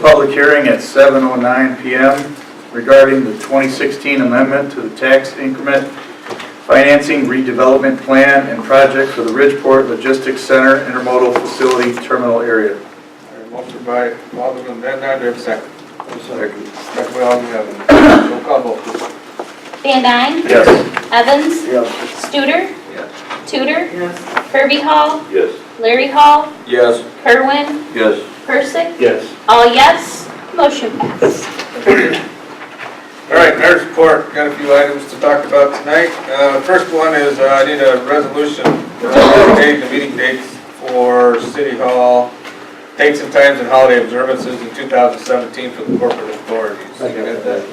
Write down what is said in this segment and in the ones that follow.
public hearing at 7:09 PM regarding the 2016 amendment to the tax increment financing redevelopment plan and project for the Ridgeport Logistics Center Intermodal Facility Terminal Area. Alright, Motion by Alderman Van Dyne, do I have a second? Second. Second by Alderman Evans. Roll call vote, please. Van Dyne. Yes. Evans. Yes. Studer. Tudor. Yes. Kirby Hall. Yes. Larry Hall. Yes. Kerwin. Yes. Persick. Yes. All yes. Motion passed. All right, mayor's report, got a few items to talk about tonight. Uh, first one is, uh, I need a resolution, uh, date, the meeting dates for city hall, dates and times and holiday observances in two thousand seventeen for the corporate authorities. You got that?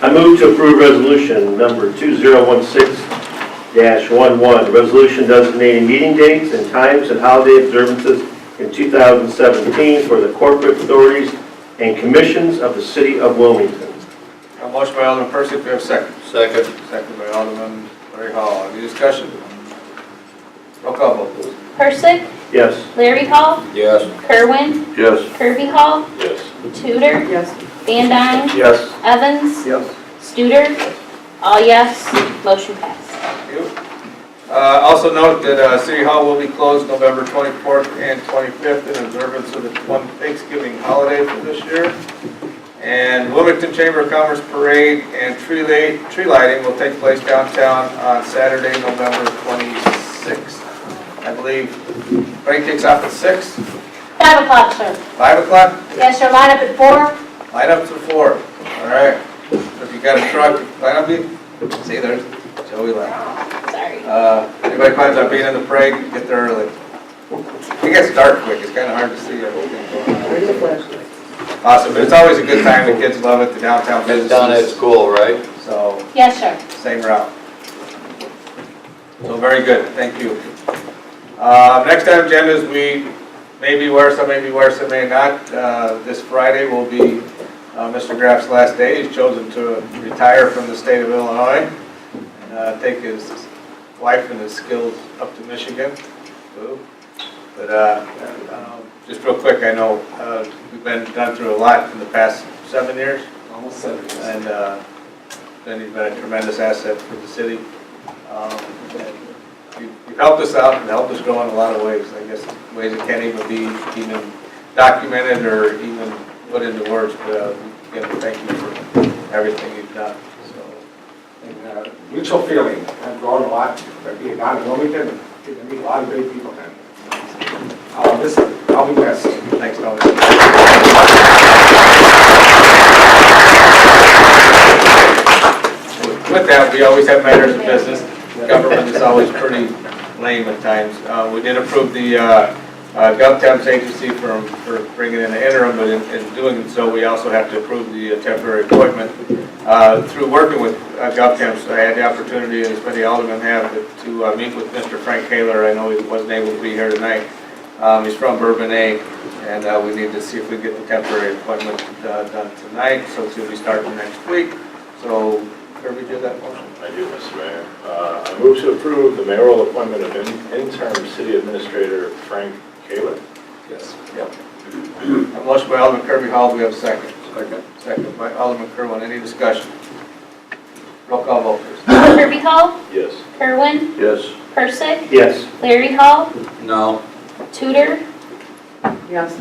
I move to approve resolution number 2016-11, resolution designating meeting dates and times and holiday observances in 2017 for the corporate authorities and commissions of the city of Wilmington. A motion by Alderman Percy, do I have a second? Second. Second by Alderman Larry Hall, any discussion? Roll call vote, please. Persick. Yes. Larry Hall. Yes. Kerwin. Yes. Kirby Hall. Yes. Tudor. Yes. Van Dyne. Yes. Evans. Yes. Studer. All yes. Motion passed. Thank you. Uh, Also note that uh, City Hall will be closed November 24th and 25th in observance of the one Thanksgiving holiday for this year. And Wilmington Chamber of Commerce Parade and tree light- tree lighting will take place downtown on Saturday, November 26th. I believe parade kicks off at 6, Five o'clock, sir. 5 o'clock? Yes, sir, line up at four. Line up to 4, all right. If you got a truck, line up, you- see, there's Joey left. Sorry. Uh, Anybody plans on being in the parade, get there early. It gets dark quick, it's kind of hard to see everything going on. Where's the flashlight? Awesome, but it's always a good time, the kids love it, the downtown It's done at businesses, school, right? so Yes, sir. same route. So very good, thank you. Uh, Next item agenda is we may be where some may be where some may not. Uh, This Friday will be uh, Mr. Graff's last day, he's chosen to retire from the state of Illinois and uh, take his wife and his skills up to Michigan. Boo. But uh, uh, just real quick, I know uh, we've been, gone through a lot in the past seven years. Almost seven. And uh, then he's been a tremendous asset for the city. Um, and you- You've helped us out and helped us grow in a lot of ways, I guess, ways that can't even be even documented or even put into words, but uh, again, thank you for everything you've done, so. and uh, mutual feeling. I've grown a lot by being down in Wilmington and getting to meet a lot of great people. And, Uh, this, I'll be blessed. Thanks, Tony. With that, we always have matters of business. Government is always pretty lame at times. Uh, We did approve the uh, uh, GovTemps agency for for bringing in the interim, but in in doing so, we also have to approve the uh, temporary appointment. Uh, Through working with uh, GovTemps, I had the opportunity, as many aldermen have, to uh, meet with Mr. Frank Kaler. I know he wasn't able to be here tonight. Um, He's from Bourbon A, and uh, we need to see if we get the temporary appointment uh, done tonight, so it's going to be starting next week. So Kirby did that motion. I do, Mr. Mayor. Uh, I move to approve the mayoral appointment of in- interim city administrator Frank Kaler. Yes. Yep. A motion by Alderman Kirby Hall, do we have a second? Second. Second by Alderman Kerwin, any discussion? Roll call vote, please. Kirby Hall. Yes. Kerwin. Yes. Persick. Yes. Larry Hall. No. Tudor. Yes.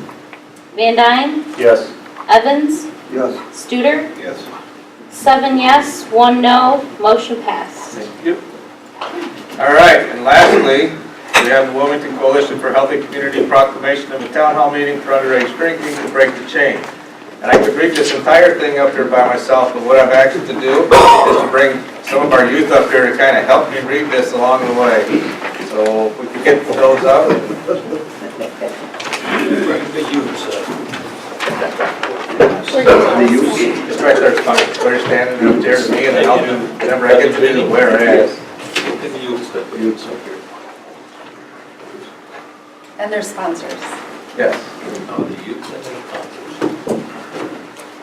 Van Dyne. Yes. Evans. Yes. Studer. Yes. Seven yes, one no, motion passed. Thank you. All right, and lastly, we have the Wilmington Coalition for Healthy Community proclamation of a town hall meeting for underage drinking to break the chain. And I could read this entire thing up here by myself, but what I've asked to do is to bring some of our youth up here to kind of help me read this along the way. So if we could get those up. Just right there, it's fine. They're standing up there to me, and then I'll do, whenever I get to do the whereas. And their sponsors. Yes.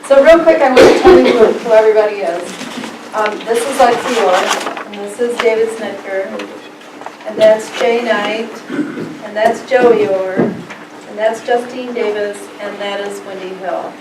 So real quick, I want to tell you who- who everybody is. Um, This is Lexi Orr, and this is David Snicker, and that's Jay Knight, and that's Joey Orr, and that's Justine Davis, and that is Wendy Hill.